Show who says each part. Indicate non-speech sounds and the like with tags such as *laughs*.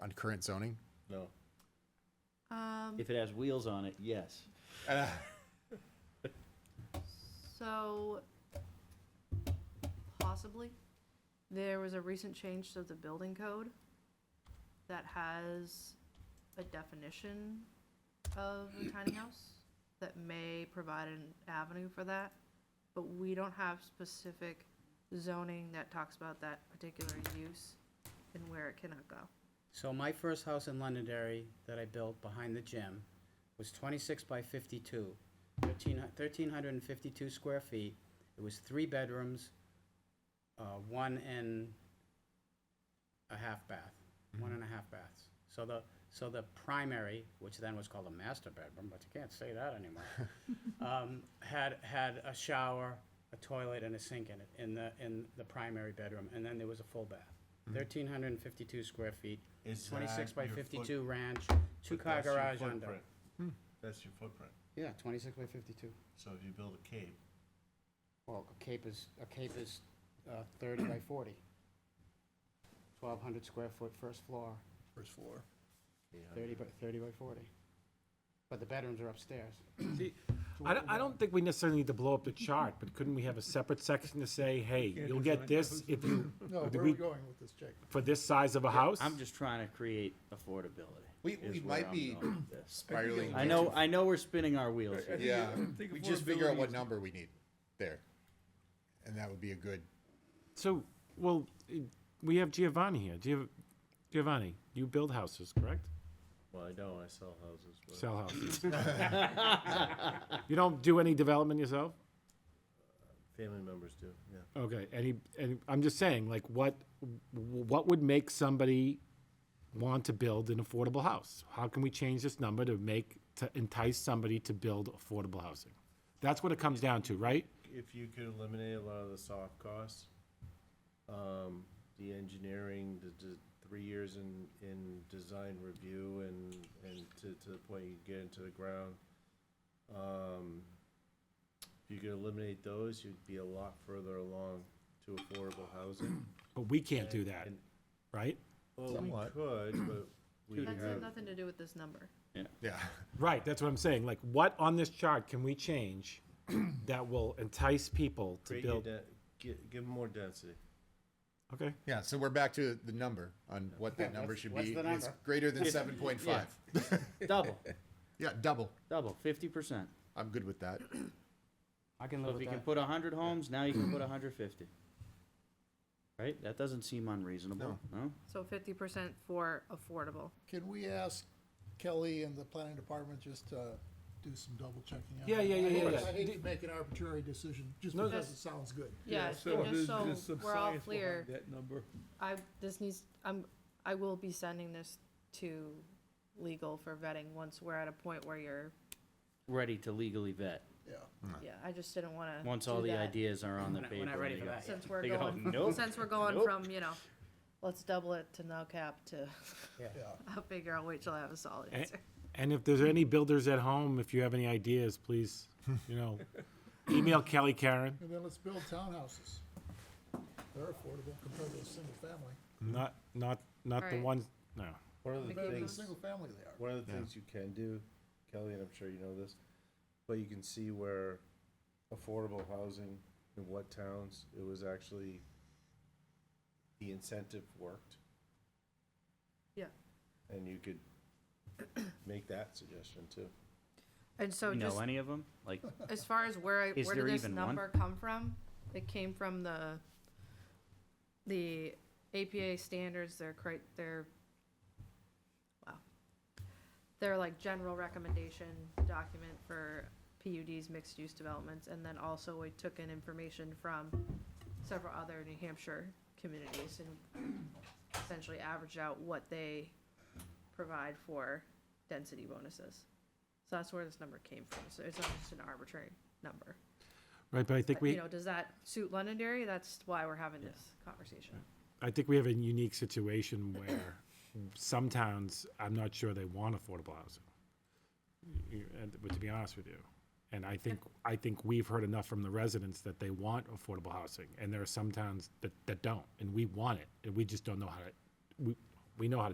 Speaker 1: on current zoning?
Speaker 2: No.
Speaker 3: If it has wheels on it, yes.
Speaker 4: So, possibly, there was a recent change to the building code that has a definition of a tiny house that may provide an avenue for that, but we don't have specific zoning that talks about that particular use and where it cannot go.
Speaker 5: So my first house in Londonderry that I built behind the gym was twenty-six by 52, 13 1,352 square feet. It was three bedrooms, uh, one and a half bath, one and a half baths. So the, so the primary, which then was called a master bedroom, but you can't say that anymore, um, had, had a shower, a toilet, and a sink in it, in the, in the primary bedroom, and then there was a full bath. 1,352 square feet,
Speaker 2: Is
Speaker 5: 26
Speaker 2: that
Speaker 5: by
Speaker 2: your foot-
Speaker 5: 52 ranch,
Speaker 2: But
Speaker 5: two-car
Speaker 2: that's your
Speaker 5: garage under.
Speaker 2: footprint. That's your footprint.
Speaker 5: Yeah, 26 by 52.
Speaker 2: So if you build a cave,
Speaker 5: Well, a cape is, a cape is uh, 30 by 40. 1,200 square foot first floor,
Speaker 1: First floor.
Speaker 5: 30 by, 30 by 40. But the bedrooms are upstairs.
Speaker 6: See, I don't, I don't think we necessarily need to blow up the chart, but couldn't we have a separate section to say, hey, you'll get this if you,
Speaker 7: *laughs* No,
Speaker 6: Do
Speaker 7: where are
Speaker 6: we-
Speaker 7: we going with this, Jake?
Speaker 6: for this size of a house?
Speaker 3: I'm just trying to create affordability.
Speaker 1: We-
Speaker 3: is
Speaker 1: we
Speaker 3: where
Speaker 1: might
Speaker 3: I'm
Speaker 1: be-
Speaker 3: going with this.
Speaker 1: Spiraling.
Speaker 3: I know, I know we're spinning our wheels here.
Speaker 1: Yeah,
Speaker 7: think
Speaker 1: we just figure out
Speaker 7: affordability
Speaker 1: what
Speaker 7: is-
Speaker 1: number we need there. And that would be a good,
Speaker 6: So, well, i- we have Giovanni here. Giov- Giovanni, you build houses, correct?
Speaker 2: well, I know, I sell houses, but
Speaker 6: Sell *laughs* houses. You don't do any development yourself?
Speaker 2: family members do, yeah.
Speaker 6: Okay, any, and I'm just saying, like, what, what would make somebody want to build an affordable house? How can we change this number to make, to entice somebody to build affordable housing? That's what it comes down to, right?
Speaker 2: If you could eliminate a lot of the soft costs, um, the engineering, the, the three years in, in design review and, and to, to the point you get into the ground. Um, if you could eliminate those, you'd be a lot further along to affordable housing.
Speaker 6: But we can't do that,
Speaker 2: And-
Speaker 6: right?
Speaker 2: Well, we could, but we
Speaker 4: That's has
Speaker 2: have,
Speaker 4: nothing to do with this number.
Speaker 1: yeah. *laughs*
Speaker 6: Right, that's what I'm saying, like, what on this chart can
Speaker 2: *clears throat*
Speaker 6: we change that will entice people to
Speaker 2: create your
Speaker 6: build?
Speaker 2: de- gi- give 'em more density.
Speaker 6: Okay,
Speaker 1: Yeah, so we're back to the number on what that
Speaker 5: Yeah,
Speaker 1: number
Speaker 5: what's-
Speaker 1: should
Speaker 5: what's
Speaker 1: be.
Speaker 5: the
Speaker 1: It's
Speaker 5: number?
Speaker 1: greater than seven point five.
Speaker 3: Double,
Speaker 1: Yeah, double.
Speaker 3: double, fifty percent.
Speaker 1: I'm good with that.
Speaker 5: I can
Speaker 3: So
Speaker 5: live
Speaker 3: if
Speaker 5: with
Speaker 3: you can
Speaker 5: that.
Speaker 3: put hundred homes, now you can put hundred fifty. Right? That doesn't seem unreasonable, no?
Speaker 4: So fifty percent for affordable.
Speaker 7: Can we ask Kelly and the planning department just to do some double checking? on
Speaker 6: Yeah,
Speaker 7: that?
Speaker 6: yeah, yeah,
Speaker 7: I
Speaker 6: yeah,
Speaker 7: hate-
Speaker 6: yeah.
Speaker 7: I hate to make an arbitrary decision just
Speaker 6: No,
Speaker 7: because
Speaker 4: that's-
Speaker 7: it sounds good.
Speaker 4: Yeah,
Speaker 8: So
Speaker 4: and
Speaker 8: there's
Speaker 4: just
Speaker 8: just
Speaker 4: so
Speaker 8: some
Speaker 4: we're all
Speaker 8: science behind
Speaker 4: clear,
Speaker 8: That number.
Speaker 4: I, this needs, I'm, I will be sending this to legal for vetting once we're at a point where you're,
Speaker 3: Ready to legally vet,
Speaker 7: Yeah.
Speaker 4: yeah, I just didn't wanna.
Speaker 3: once
Speaker 4: do
Speaker 3: all the
Speaker 4: that
Speaker 3: ideas are on the
Speaker 5: We're not-
Speaker 3: paper.
Speaker 5: We're not ready
Speaker 3: they
Speaker 5: for
Speaker 3: go,
Speaker 5: that yet.
Speaker 4: Since we're
Speaker 3: They go, *laughs*
Speaker 4: going,
Speaker 3: "Nope,
Speaker 4: since we're going
Speaker 3: nope."
Speaker 4: from, you know, let's double it to no cap to, *laughs*
Speaker 7: Yeah.
Speaker 4: I'll figure, I'll wait till I have a solid
Speaker 6: Eh.
Speaker 4: answer.
Speaker 6: And if there's any builders at home, if you have any ideas, please,
Speaker 2: *laughs*
Speaker 6: you know, email Kelly Karen.
Speaker 7: And then let's build townhouses. They're affordable compared to a single family.
Speaker 6: Not, not, not the
Speaker 4: Alright.
Speaker 6: ones, no.
Speaker 2: One of the
Speaker 7: Compared to a
Speaker 2: things,
Speaker 7: single family they are.
Speaker 2: one of the things you can do, Kelly, and I'm sure you know this, but you can see where affordable housing in what towns it was actually the incentive worked,
Speaker 4: Yeah,
Speaker 2: and you could make that suggestion too.
Speaker 4: and so
Speaker 3: You
Speaker 4: just
Speaker 3: know any of them? Like,
Speaker 4: as far as where I,
Speaker 3: Is
Speaker 4: where did
Speaker 3: there
Speaker 4: this
Speaker 3: even one?
Speaker 4: number come from? It came from the, the APA standards, their cri- their, wow. Their like general recommendation document for PUDs, mixed-use developments, and then also we took in information from several other New Hampshire communities and essentially averaged out what they provide for density bonuses. So that's where this number came from. So it's not just an arbitrary number.
Speaker 6: Right, but I think
Speaker 4: But, you
Speaker 6: we,
Speaker 4: know, does that suit Londonderry? That's why we're having this conversation.
Speaker 6: I think we have a unique situation where some towns, I'm not sure they want affordable housing. You- and- But to be honest with you, and I think, I think we've heard enough from the residents that they want affordable housing. And there are some towns that, that don't, and we want it, and we just don't know how to, we, we know how to